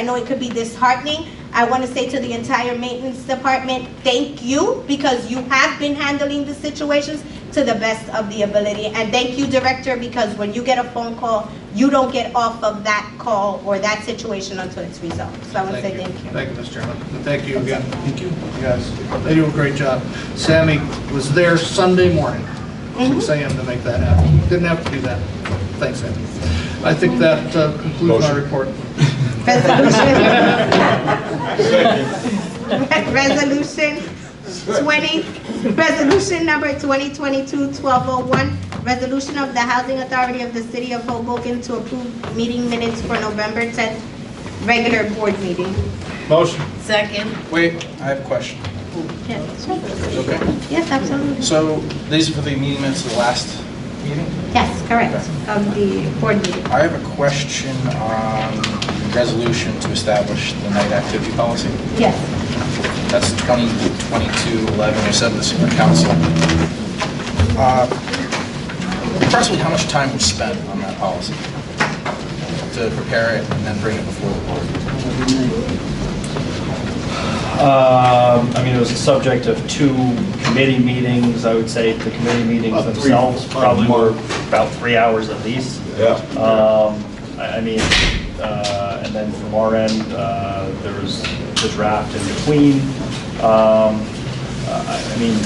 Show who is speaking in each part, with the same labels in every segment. Speaker 1: I know it could be disheartening. I want to say to the entire maintenance department, thank you, because you have been handling the situations to the best of the ability. And thank you, Director, because when you get a phone call, you don't get off of that call or that situation until it's resolved. So I want to say thank you.
Speaker 2: Thank you, Mr. Chairman. And thank you again. Thank you. Guys, they do a great job. Sammy was there Sunday morning,
Speaker 1: Mm-hmm.
Speaker 2: six AM to make that happen. Didn't have to do that. Thanks, Sammy. I think that uh, concludes my
Speaker 3: Motion.
Speaker 2: report.
Speaker 1: Resolution. Resolution 20, resolution number 2022-1201, resolution of the Housing Authority of the City of Hoboken to approve meeting minutes for November 10th, regular board meeting.
Speaker 2: Motion.
Speaker 4: Second.
Speaker 5: Wait, I have a question.
Speaker 1: Yes, sure.
Speaker 5: Okay.
Speaker 1: Yes, absolutely.
Speaker 5: So these are for the meeting minutes of the last meeting?
Speaker 1: Yes, correct, of the board meeting.
Speaker 5: I have a question on resolution to establish the night activity policy.
Speaker 1: Yes.
Speaker 5: That's 2022-11, you said this in the council. Uh, Approximately how much time was spent on that policy to prepare it and then bring it before the board?
Speaker 6: Um, I mean, it was the subject of two committee meetings. I would say the committee meetings
Speaker 3: About three,
Speaker 6: themselves
Speaker 3: about
Speaker 6: probably
Speaker 3: more.
Speaker 6: were about three hours at least.
Speaker 3: Yeah.
Speaker 6: Um, I I mean, uh, and then from our end, uh, there was the draft in between. Um, I I mean,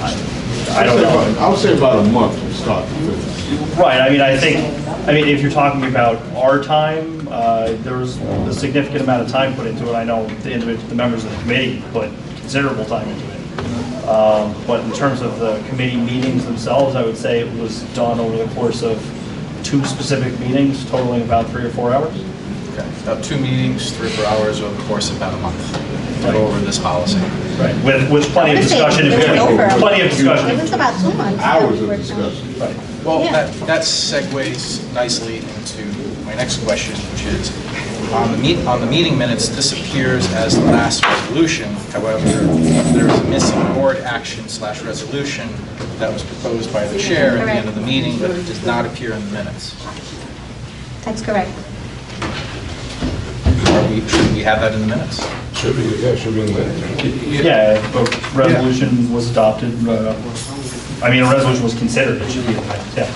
Speaker 6: I I don't know.
Speaker 3: I would say about a month from start to finish.
Speaker 6: Right, I mean, I think, I mean, if you're talking about our time, uh, there was a significant amount of time put into it. I know the individual, the members of the committee put considerable time into it. Um, But in terms of the committee meetings themselves, I would say it was done over the course of two specific meetings totaling about three or four hours.
Speaker 5: Okay, About two meetings, three, or four hours over the course of about a month to go over this policy.
Speaker 6: Right. With, with plenty of
Speaker 1: I'm saying
Speaker 6: discussion in
Speaker 1: it was
Speaker 6: between.
Speaker 1: over.
Speaker 6: Plenty of
Speaker 1: It
Speaker 6: discussion.
Speaker 1: was about two months. that
Speaker 3: Hours
Speaker 1: we
Speaker 3: of
Speaker 1: worked on.
Speaker 3: discussion.
Speaker 6: Right.
Speaker 5: Well,
Speaker 1: Yeah.
Speaker 5: that that segues nicely into my next question, which is, on the meet, on the meeting minutes, this appears as the last resolution. However, there is a missing board action slash resolution that was proposed by the chair at the end of the meeting, but it does not appear in the minutes.
Speaker 1: That's correct.
Speaker 5: Are we, should we have that in the minutes?
Speaker 3: Should be, yeah, should be in there.
Speaker 6: Yeah, a resolution was adopted. uh, I mean, a resolution was considered, it should be, yeah.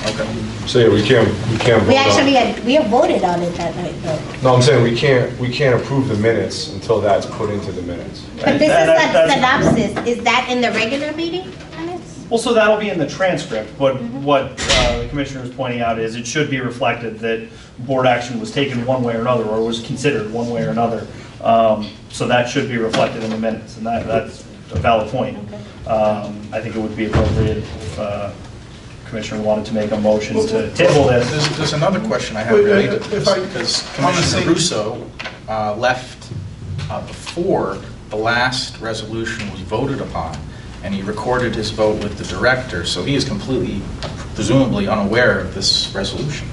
Speaker 3: So, yeah, we can't, we can't
Speaker 1: We
Speaker 3: vote on-
Speaker 1: actually had, we had voted on it that night, though.
Speaker 3: No, I'm saying we can't, we can't approve the minutes until that's put into the minutes.
Speaker 1: But this is
Speaker 6: That- that-
Speaker 1: a
Speaker 6: that's-
Speaker 1: synopsis. Is that in the regular meeting minutes?
Speaker 6: Well, so that'll be in the transcript, but what uh, the commissioner is pointing out is it should be reflected that board action was taken one way or another, or was considered one way or another. Um, So that should be reflected in the minutes, and that, that's a valid point. Um, I think it would be appropriate if uh, Commissioner wanted to make a motion to table this.
Speaker 5: There's, there's another question I have
Speaker 2: Wait, uh,
Speaker 5: related to
Speaker 2: if I-
Speaker 5: this, because
Speaker 2: on the same-
Speaker 5: Commissioner Russo uh, left uh, before the last resolution was voted upon, and he recorded his vote with the director, so he is completely presumably unaware of this resolution.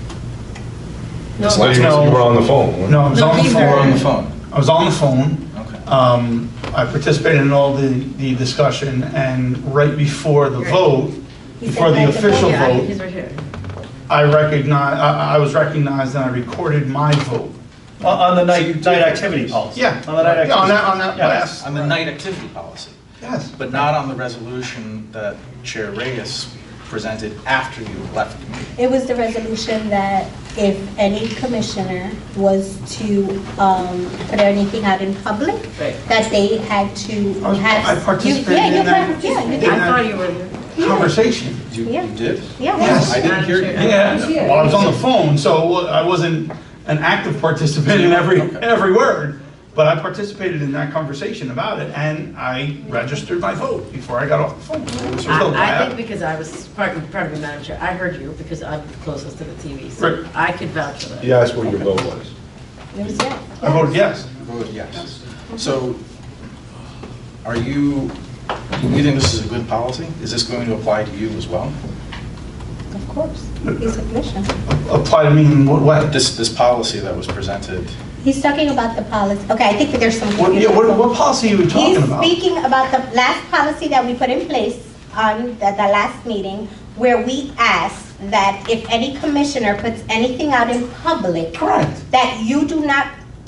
Speaker 3: That's why You you were on the phone. weren't you?
Speaker 7: No, I was
Speaker 4: No,
Speaker 7: on the
Speaker 4: these
Speaker 5: Or on
Speaker 4: are-
Speaker 7: phone.
Speaker 5: the phone.
Speaker 7: I was on the phone.
Speaker 5: Okay.
Speaker 7: Um, I participated in all the, the discussion, and right before the vote,
Speaker 1: He said
Speaker 7: before the
Speaker 1: right before.
Speaker 7: official
Speaker 4: Yeah, I-
Speaker 7: vote,
Speaker 4: he's right here.
Speaker 7: I recognized, I, I was recognized and I recorded my vote.
Speaker 6: On- Uh, On the night, night activity policy.
Speaker 7: Yeah.
Speaker 6: On the night activity.
Speaker 7: Yeah, on that- on that
Speaker 6: Yeah.
Speaker 7: last-
Speaker 5: On the night activity policy,
Speaker 7: Yes.
Speaker 5: but not on the resolution that Chair Reyes presented after you left the meeting.
Speaker 1: It was the resolution that if any commissioner was to um, put anything out in public,
Speaker 4: Right.
Speaker 1: that they had to
Speaker 7: I was-
Speaker 1: have.
Speaker 7: I participated
Speaker 1: Yeah, you
Speaker 7: in that.
Speaker 1: part- Yeah, you
Speaker 4: I
Speaker 7: Yeah.
Speaker 1: did.
Speaker 4: thought you were here.
Speaker 7: Conversation.
Speaker 5: You
Speaker 1: Yeah.
Speaker 5: you did?
Speaker 1: Yeah.
Speaker 7: Yes.
Speaker 5: I didn't hear you.
Speaker 7: Yeah, well, I was on the phone, so wa- I wasn't an active participant in every, every word, but I participated in that conversation about it, and I registered my vote before I got off the phone. So,
Speaker 4: I I think because I was, pardon pardon me, Madam Chair, I heard you because I'm closest to the TV, so
Speaker 7: Right.
Speaker 4: I could vouch for that.
Speaker 3: You asked what your vote was.
Speaker 1: It was, yeah.
Speaker 7: I voted yes.
Speaker 5: Voted yes. So are you, you think this is a good policy? Is this going to apply to you as well?
Speaker 1: Of course. He's a commissioner.
Speaker 7: Apply to me in what way?
Speaker 5: This, this policy that was presented,
Speaker 1: He's talking about the policy. Okay, I think that there's some.
Speaker 7: What, yeah, what, what policy are you
Speaker 1: He's
Speaker 7: talking about?
Speaker 1: speaking about the last policy that we put in place on the, the last meeting, where we asked that if any commissioner puts anything out in public.
Speaker 7: Correct.
Speaker 1: That you do not